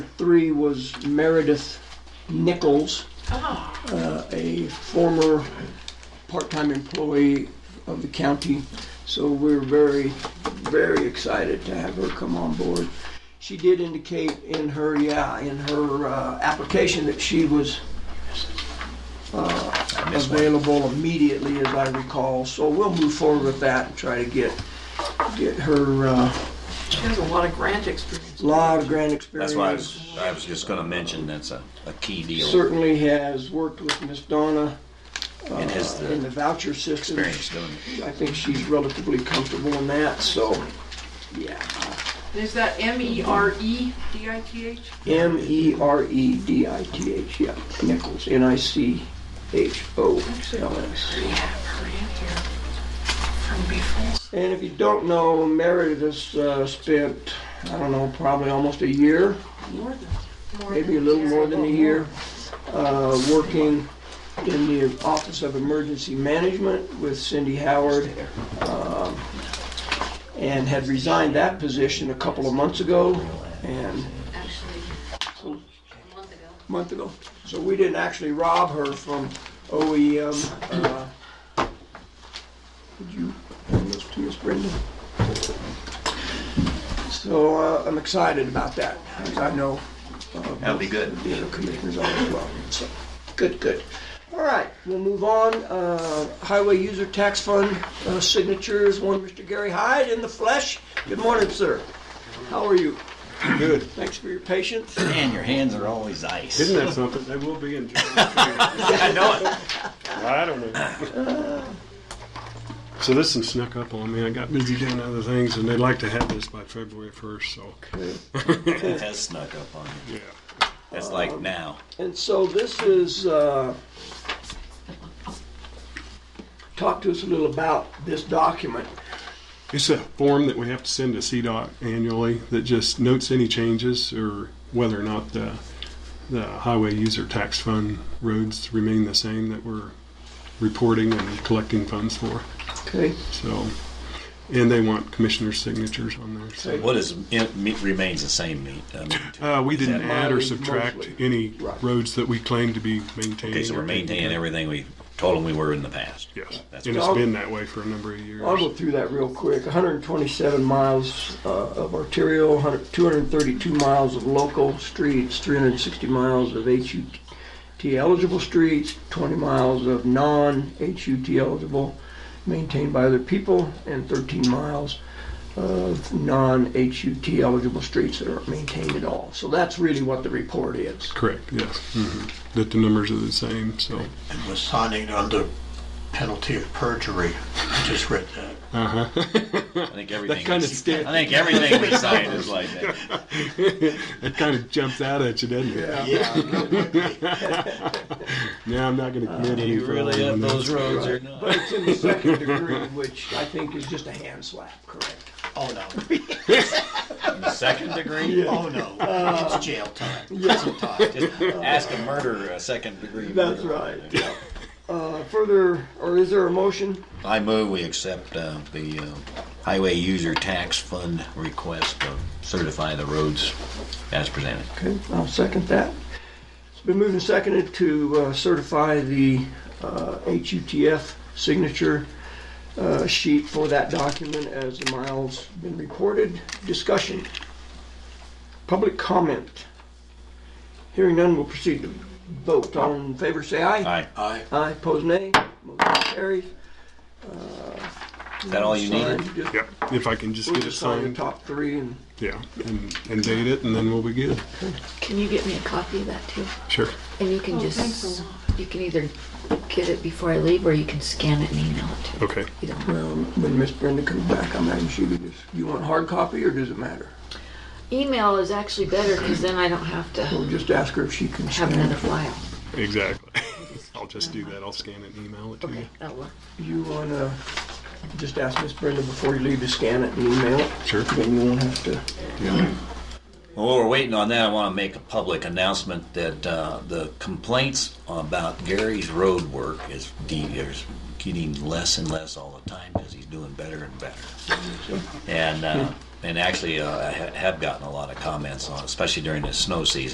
three was Meredith Nichols, Oh, uh, a former part-time employee of the county. So we're very, very excited to have her come on board. She did indicate in her, yeah, in her uh, application that she was uh, available immediately, as I recall. So we'll move forward with that and try to get, get her a she has a lot of grant experience. lot of grand experience. That's why I was, I was just gonna mention that's a, a key deal Certainly has worked with Miss Donna and has in the the voucher system. uh, experience doing it. I think she's relatively comfortable in that, so, yeah. Is that M E R E D I T H? M E R E D I T H, yeah, Nichols, N I C H O L S. We have her in here from before. And if you don't know, Meredith uh, spent, I don't know, probably almost a year, More than. maybe a little more than a year, uh, working in the Office of Emergency Management with Cindy Howard. um, And had resigned that position a couple of months ago, and actually a month ago. month ago. So we didn't actually rob her from OEM. uh, Would you hand those to Miss Brenda? So uh, I'm excited about that, because I know. uh, That'll be good. The other commissioners are as well. So, good, good. All right, we'll move on. Uh, Highway User Tax Fund uh, signatures, one Mr. Gary Hyde in the flesh. Good morning, sir. How are you? Good. Thanks for your patience. Man, your hands are always ice. Isn't that something? They will be in Germany. I know it. I don't know. So this one snuck up on me. I got busy doing other things, and they'd like to have this by February 1st. So, It has snuck up on you. yeah. That's like now. And so this is, uh, talk to us a little about this document. It's a form that we have to send to CDOT annually that just notes any changes or whether or not the, the highway user tax fund roads remain the same that we're reporting and collecting funds for. Okay. So, and they want commissioner's signatures on there. So. What is, it me- remains the same meat? I mean, Uh, we didn't that add or mileage subtract mostly? any Right. roads that we claim to be maintaining. Okay, so we're or- maintaining everything we told them we were in the past. Yes, That's and what- it's been that way for a number of years. I'll go through that real quick. 127 miles uh, of arterial, 100 232 miles of local streets, 360 miles of HUT eligible streets, 20 miles of non-HUT eligible maintained by other people, and 13 miles of non-HUT eligible streets that aren't maintained at all. So that's really what the report is. Correct, yes. hmm That the numbers are the same, so, and was signing under penalty of perjury. I just read that. uh-huh. I think everything, kinda we- scared- I think everything we signed is like that. It kind of jumps out at you, doesn't it? Now, I'm not gonna Uh, commit any You really further up on those that. roads or not? But it's in the second degree, which I think is just a hand slap, correct? Oh, no. In the second degree? Oh, no. It's jail time. Prison time. Just ask a murderer, a second degree murder. That's right, yeah. Uh, Further, or is there a motion? I move we accept uh, the uh, highway user tax fund request to certify the roads as presented. Okay, I'll second that. It's been moved and seconded to uh, certify the uh, HUTF signature uh, sheet for that document as the miles been reported. Discussion. Public comment. Hearing none, we'll proceed to vote. All in favor, say aye. Aye. I, Aye, pose nay. Motion carries. Is that all you needed? Sign, just- Yep, if I can just We'll get it just sign the signed, top three and yeah, and, and date it, and then we'll be good. Can you get me a copy of that too? Sure. And you can just, you can either get it before I leave or you can scan it and email it to me. Okay. Either one. Well, when Miss Brenda comes back, I'm having she could just, you want hard copy or does it matter? Email is actually better because then I don't have to We'll just ask her if she can have scan another it. file. Exactly. I'll just do that. I'll scan it and email it to you. Okay, that'll work. You wanna just ask Miss Brenda before you leave to scan it and email it? Sure. Then you won't have to. Well, while we're waiting on that, I want to make a public announcement that uh, the complaints about Gary's road work is de- is getting less and less all the time because he's doing better and better. And uh, and actually, uh, I ha- have gotten a lot of comments on, it, especially during the snow season.